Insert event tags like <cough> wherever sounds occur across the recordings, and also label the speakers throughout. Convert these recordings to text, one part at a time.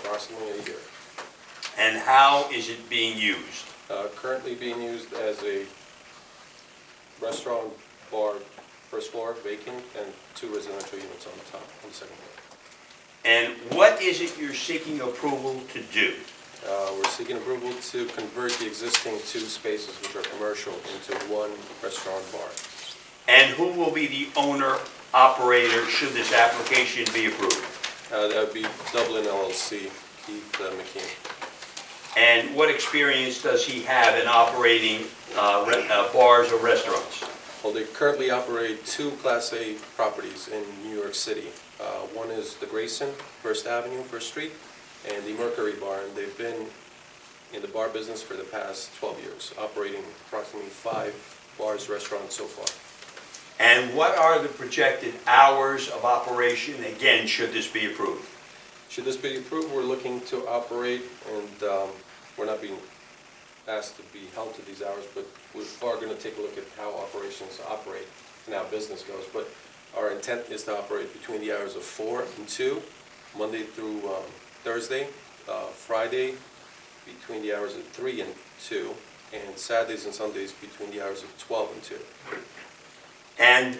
Speaker 1: approximately a year.
Speaker 2: And how is it being used?
Speaker 1: Uh, Currently being used as a restaurant, bar, first floor vacant, and two residential units on the top, on the second floor.
Speaker 2: And what is it you're seeking approval to do?
Speaker 1: Uh, We're seeking approval to convert the existing two spaces, which are commercial, into one restaurant bar.
Speaker 2: And who will be the owner, operator, should this application be approved?
Speaker 1: Uh, That would be Dublin LLC, Keith uh, McKean.
Speaker 2: And what experience does he have in operating uh, re- uh, bars or restaurants?
Speaker 1: Well, they currently operate two Class A properties in New York City. Uh, One is the Grayson, First Avenue, First Street, and the Mercury Bar. And they've been in the bar business for the past 12 years, operating approximately five bars, restaurants so far.
Speaker 2: And what are the projected hours of operation, again, should this be approved?
Speaker 1: Should this be approved, we're looking to operate, and um, we're not being asked to be held to these hours, but we are going to take a look at how operations operate and how business goes. But our intent is to operate between the hours of four and two, Monday through um, Thursday, uh, Friday between the hours of three and two, and Saturdays and Sundays between the hours of 12 and two.
Speaker 2: And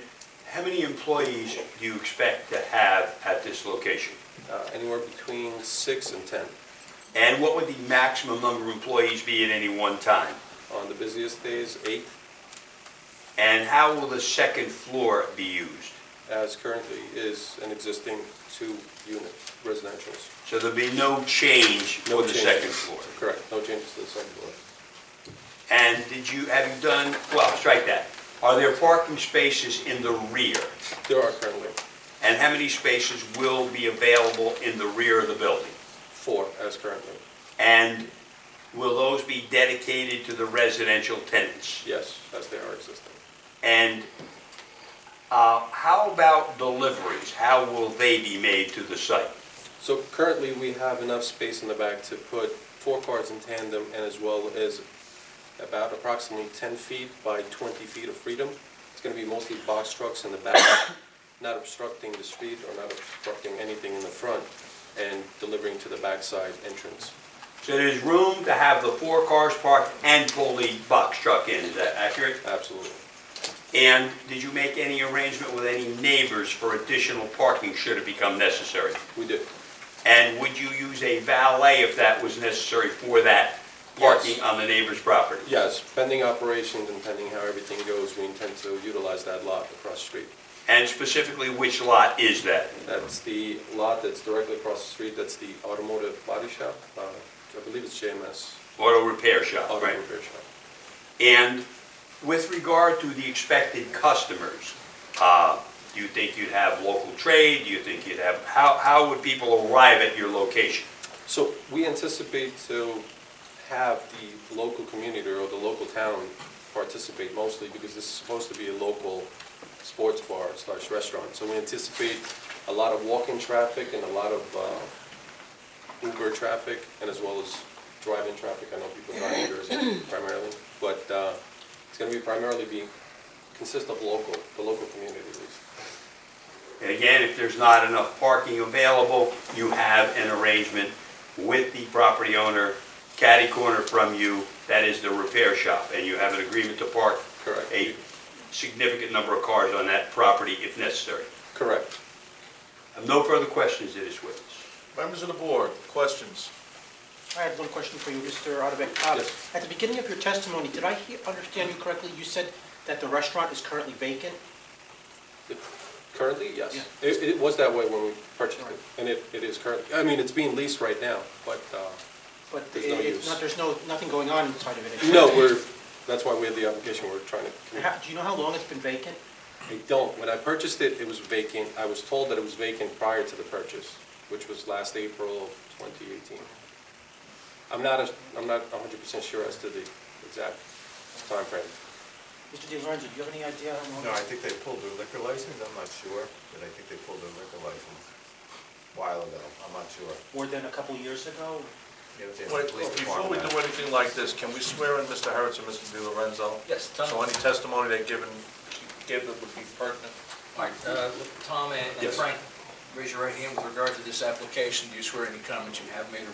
Speaker 2: how many employees do you expect to have at this location?
Speaker 1: Uh, Anywhere between six and 10.
Speaker 2: And what would the maximum number of employees be at any one time?
Speaker 1: On the busiest days, eight
Speaker 2: And how will the second floor be used?
Speaker 1: as currently is an existing two-unit residential's.
Speaker 2: So there'll be no change
Speaker 1: No
Speaker 2: for the
Speaker 1: changes.
Speaker 2: second floor?
Speaker 1: Correct, no changes to the second floor.
Speaker 2: And did you, have you done, well, strike that. Are there parking spaces in the rear?
Speaker 1: There are currently
Speaker 2: And how many spaces will be available in the rear of the building?
Speaker 1: four as currently,
Speaker 2: And will those be dedicated to the residential tenants?
Speaker 1: yes, as they are existing.
Speaker 2: And uh, how about deliveries? How will they be made to the site?
Speaker 1: So currently, we have enough space in the back to put four cars in tandem and as well as about approximately 10 feet by 20 feet of freedom. It's going to be mostly box trucks in the back, not obstructing the street or not obstructing anything in the front and delivering to the backside entrance.
Speaker 2: So there's room to have the four cars parked and pull the box truck in, is that accurate?
Speaker 1: Absolutely.
Speaker 2: And did you make any arrangement with any neighbors for additional parking should it become necessary?
Speaker 1: We did.
Speaker 2: And would you use a valet if that was necessary for that parking
Speaker 1: Yes.
Speaker 2: on the neighbor's property?
Speaker 1: Yes, pending operations and pending how everything goes, we intend to utilize that lot across the street.
Speaker 2: And specifically, which lot is that?
Speaker 1: That's the lot that's directly across the street, that's the automotive body shop, uh, I believe it's JMS.
Speaker 2: Auto repair shop,
Speaker 1: Auto
Speaker 2: right?
Speaker 1: repair shop.
Speaker 2: And with regard to the expected customers, uh, do you think you'd have local trade? Do you think you'd have, how, how would people arrive at your location?
Speaker 1: So we anticipate to have the local community or the local town participate mostly because this is supposed to be a local sports bar slash restaurant. So we anticipate a lot of walk-in traffic and a lot of uh, Uber traffic and as well as drive-in traffic. I know people drive in Jersey <coughs> primarily, but uh, it's going to be primarily be, consist of local, the local community at least.
Speaker 2: And again, if there's not enough parking available, you have an arrangement with the property owner, catty corner from you, that is the repair shop, and you have an agreement to park
Speaker 1: Correct.
Speaker 2: a significant number of cars on that property if necessary.
Speaker 1: Correct.
Speaker 2: I have no further questions to this witness.
Speaker 3: Members of the board, questions?
Speaker 4: I have one question for you, Mr. Otabek. Uh,
Speaker 1: Yes.
Speaker 4: At the beginning of your testimony, did I hear- understand you correctly? You said that the restaurant is currently vacant?
Speaker 1: Currently, yes.
Speaker 4: Yeah.
Speaker 1: It, it was that way when we purchased
Speaker 4: Right.
Speaker 1: it, and it, it is currently, I mean, it's being leased right now, but, uh,
Speaker 4: But
Speaker 1: There's no
Speaker 4: it- it-
Speaker 1: use.
Speaker 4: not- there's no, nothing going on inside of it?
Speaker 1: no,
Speaker 4: except-
Speaker 1: we're, that's why we have the application, we're trying to. commu-
Speaker 4: How- Do you know how long it's been vacant?
Speaker 1: I don't, when I purchased it, it was vacant, I was told that it was vacant prior to the purchase, which was last April of twenty eighteen. I'm not, a- I'm not hundred percent sure as to the exact timeframe.
Speaker 4: Mr. DiLorenzo, do you have any idea how long?
Speaker 3: No, I think they pulled their liquor license, I'm not sure, but I think they pulled their liquor license a while ago, I'm not sure.
Speaker 4: More than a couple years ago?
Speaker 3: You have to ask the
Speaker 5: Wait, oh,
Speaker 3: police
Speaker 5: Before we
Speaker 3: department
Speaker 5: do
Speaker 3: that.
Speaker 5: anything like this, can we swear in Mr. Harris and Mr. Di Lorenzo?
Speaker 6: Yes, Tom.
Speaker 5: So any testimony they've given, given would be pertinent?
Speaker 6: All right, uh, Tom and- and
Speaker 1: Yes.
Speaker 6: Frank, Raise your right hand with regard to this application. Do you swear any comments you have made or